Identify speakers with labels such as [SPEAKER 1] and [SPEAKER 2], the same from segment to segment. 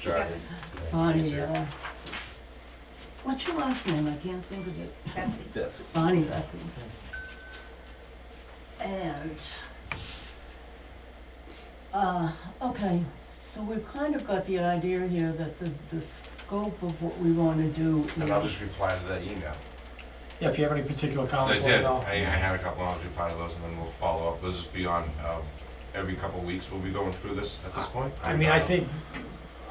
[SPEAKER 1] Charlie.
[SPEAKER 2] Bonnie, uh, what's your last name? I can't think of it.
[SPEAKER 3] Bessie.
[SPEAKER 4] Bessie.
[SPEAKER 2] Bonnie Bessie. And, uh, okay, so we've kind of got the idea here that the, the scope of what we wanna do is.
[SPEAKER 1] And I'll just reply to that email.
[SPEAKER 5] Yeah, if you have any particular
[SPEAKER 1] I
[SPEAKER 5] comments, let me
[SPEAKER 1] did, I,
[SPEAKER 5] know.
[SPEAKER 1] I had a couple, I'll reply to those and then we'll follow up. This is beyond, um, every couple of weeks, will we going through this at this point?
[SPEAKER 5] I mean, I think,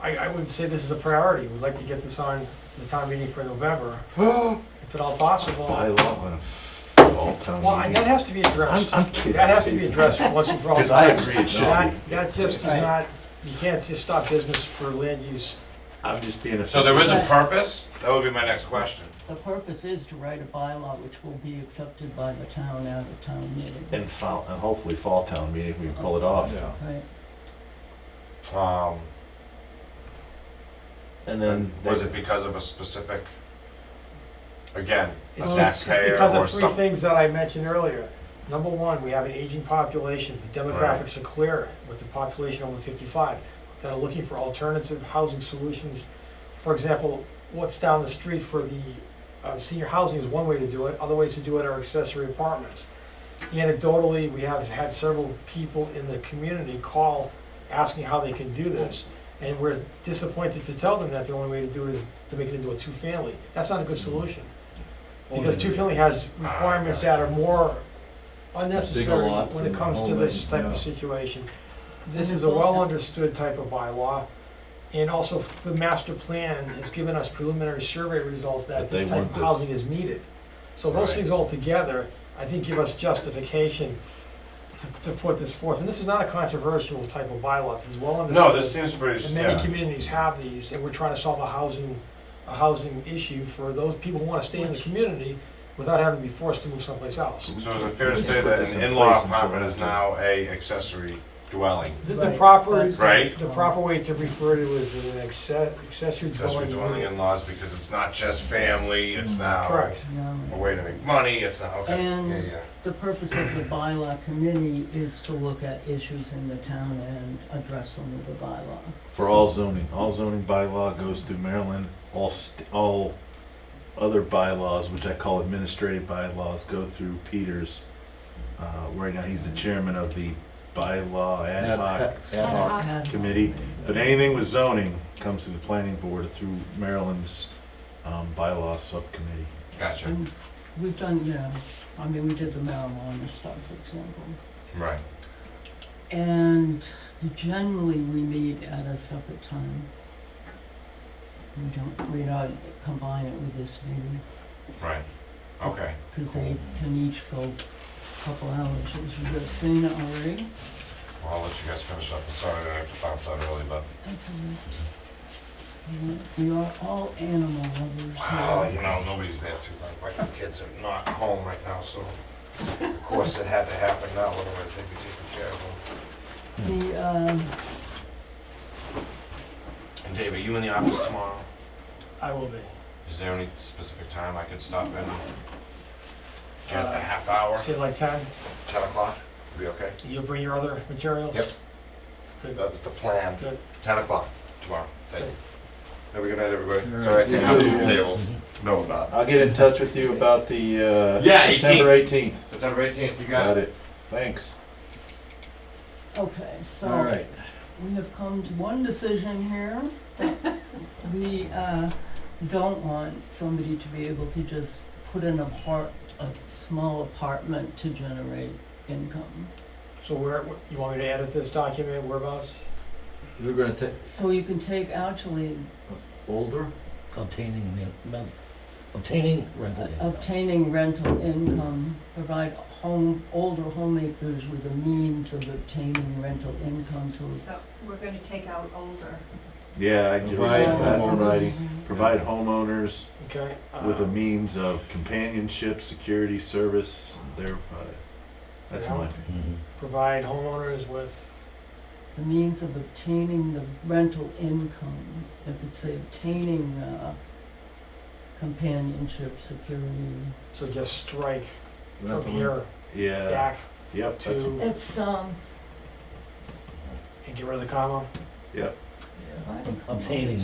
[SPEAKER 5] I, I would say this is a priority. We'd like to get this on the town meeting for November, if at all possible.
[SPEAKER 4] By
[SPEAKER 5] Well,
[SPEAKER 4] law, when fall town
[SPEAKER 5] I- that
[SPEAKER 4] meeting.
[SPEAKER 5] has to be
[SPEAKER 4] I'm,
[SPEAKER 5] addressed.
[SPEAKER 4] I'm kidding.
[SPEAKER 5] That has to be addressed once and for all.
[SPEAKER 1] Because I agree, it should
[SPEAKER 5] That,
[SPEAKER 1] be.
[SPEAKER 5] that just does not, you can't just stop business for land use.
[SPEAKER 4] I'm just being a.
[SPEAKER 1] So there is a purpose? That would be my next question.
[SPEAKER 2] The purpose is to write a bylaw which will be accepted by the town at a town meeting.
[SPEAKER 4] And fall, and hopefully fall town meeting, we can pull it off.
[SPEAKER 2] Right,
[SPEAKER 1] Um,
[SPEAKER 4] And then.
[SPEAKER 1] was
[SPEAKER 4] they-
[SPEAKER 1] it because of a specific, again, a
[SPEAKER 5] It's-
[SPEAKER 1] taxpayer
[SPEAKER 5] Because
[SPEAKER 1] or
[SPEAKER 5] of three
[SPEAKER 1] something?
[SPEAKER 5] things that I mentioned earlier. Number one, we have an aging population, the demographics are clear with the population over fifty-five that are looking for alternative housing solutions. For example, what's down the street for the, uh, senior housing is one way to do it, other ways to do it are accessory apartments. Anecdotally, we have had several people in the community call asking how they can do this. And we're disappointed to tell them that the only way to do it is to make it into a two-family. That's not a good solution. Because two-family has requirements that are more unnecessary
[SPEAKER 4] lots
[SPEAKER 5] when it
[SPEAKER 4] and
[SPEAKER 5] comes to
[SPEAKER 4] all
[SPEAKER 5] this
[SPEAKER 4] that,
[SPEAKER 5] type of
[SPEAKER 4] yeah.
[SPEAKER 5] situation. This is a well-understood type of bylaw, and also the master plan has given us preliminary survey results that
[SPEAKER 4] That they
[SPEAKER 5] this type
[SPEAKER 4] want
[SPEAKER 5] of
[SPEAKER 4] this.
[SPEAKER 5] housing is needed. So those
[SPEAKER 1] Right.
[SPEAKER 5] things altogether, I think give us justification to, to put this forth. And this is not a controversial type of bylaw, this is well understood.
[SPEAKER 1] No, this seems pretty,
[SPEAKER 5] And many
[SPEAKER 1] yeah.
[SPEAKER 5] communities have these, and we're trying to solve a housing, a housing issue for those people who wanna stay in the community without having to be forced to move someplace else.
[SPEAKER 1] So is it fair to
[SPEAKER 4] Let's
[SPEAKER 1] say
[SPEAKER 4] put
[SPEAKER 1] that
[SPEAKER 4] this
[SPEAKER 1] an
[SPEAKER 4] in
[SPEAKER 1] in-law
[SPEAKER 4] place until
[SPEAKER 1] apartment is
[SPEAKER 4] after.
[SPEAKER 1] now a accessory dwelling?
[SPEAKER 5] The, the
[SPEAKER 2] Right.
[SPEAKER 5] proper,
[SPEAKER 2] That's-
[SPEAKER 1] Right.
[SPEAKER 5] the proper way to refer to it is an acce-
[SPEAKER 1] Accessory
[SPEAKER 5] accessory dwelling
[SPEAKER 1] dwelling
[SPEAKER 5] unit.
[SPEAKER 1] in-laws because it's not just family, it's now.
[SPEAKER 5] Correct.
[SPEAKER 2] yeah.
[SPEAKER 1] a way to make money, it's not, okay,
[SPEAKER 2] And-
[SPEAKER 1] yeah, yeah.
[SPEAKER 2] The purpose of the bylaw committee is to look at issues in the town and address them with the bylaw.
[SPEAKER 4] For all zoning, all zoning bylaw goes through Maryland, all, st- all other bylaws, which I call administrative bylaws, go through Peters. Uh, right now, he's the chairman of the bylaw ad hoc.
[SPEAKER 6] Ad hoc.
[SPEAKER 4] committee, But anything with zoning comes to the planning board through Maryland's, um, bylaw subcommittee.
[SPEAKER 1] Gotcha,
[SPEAKER 2] And We've done, you know, I mean, we did the marijuana stuff, for example.
[SPEAKER 1] right.
[SPEAKER 2] And generally, we meet at a separate time. We don't, we don't combine it with this meeting,
[SPEAKER 1] Right, okay.
[SPEAKER 2] because they can each go a couple hours, as you have seen already.
[SPEAKER 1] Well, I'll let you guys finish up, I'm sorry that I have to bounce out early, but,
[SPEAKER 2] That's all right. We are all animal lovers
[SPEAKER 1] wow,
[SPEAKER 2] here.
[SPEAKER 1] you know, nobody's there too, my wife and kids are not home right now, so of course it had to happen now, otherwise they'd be taken care of them.
[SPEAKER 2] The, um,
[SPEAKER 1] And Dave, are you in the office tomorrow?
[SPEAKER 5] I will be.
[SPEAKER 1] Is there any specific time I could stop in? Get
[SPEAKER 5] Uh,
[SPEAKER 1] a half hour,
[SPEAKER 5] Say like ten,
[SPEAKER 1] ten o'clock, be okay?
[SPEAKER 5] you'll bring your other materials?
[SPEAKER 1] Yep.
[SPEAKER 5] Good,
[SPEAKER 1] That's the plan,
[SPEAKER 5] good.
[SPEAKER 1] ten o'clock tomorrow, thank you. Have a good night, everybody,
[SPEAKER 6] Alright.
[SPEAKER 1] sorry I came out
[SPEAKER 4] Yeah.
[SPEAKER 1] of the tables. No, I'm not.
[SPEAKER 4] I'll get in touch with you about the, uh,
[SPEAKER 1] Yeah,
[SPEAKER 4] September eighteenth.
[SPEAKER 1] September eighteenth, you got
[SPEAKER 4] Got
[SPEAKER 1] it.
[SPEAKER 4] it. Thanks.
[SPEAKER 2] okay, so.
[SPEAKER 4] All right.
[SPEAKER 2] We have come to one decision here. that We uh, don't want somebody to be able to just put in a part, a small apartment to generate income.
[SPEAKER 5] So where, you want me to edit this document, whereabouts?
[SPEAKER 6] We're gonna take
[SPEAKER 2] So you can take actually
[SPEAKER 6] older, obtaining, men- men- obtaining rental. income.
[SPEAKER 2] obtaining rental income, provide home, older homemakers with a means of obtaining rental income, so.
[SPEAKER 3] So we're gonna take out older.
[SPEAKER 4] Yeah, I did
[SPEAKER 6] Provide
[SPEAKER 4] that in
[SPEAKER 6] homeowners.
[SPEAKER 4] writing. Provide homeowners
[SPEAKER 5] Okay.
[SPEAKER 4] with
[SPEAKER 5] uh,
[SPEAKER 4] a means of companionship, security, service, thereby. That's
[SPEAKER 5] Yeah.
[SPEAKER 4] mine.
[SPEAKER 6] Mhm.
[SPEAKER 5] Provide homeowners with
[SPEAKER 2] The means of obtaining the rental income, I could say obtaining uh, companionship, security,
[SPEAKER 5] So just strike from
[SPEAKER 6] Rental
[SPEAKER 5] here
[SPEAKER 4] Yeah,
[SPEAKER 5] back
[SPEAKER 4] yep, that's,
[SPEAKER 5] to,
[SPEAKER 2] It's, um,
[SPEAKER 5] and get rid of the comma.
[SPEAKER 4] yep.
[SPEAKER 6] Yeah.
[SPEAKER 7] providing.
[SPEAKER 2] obtaining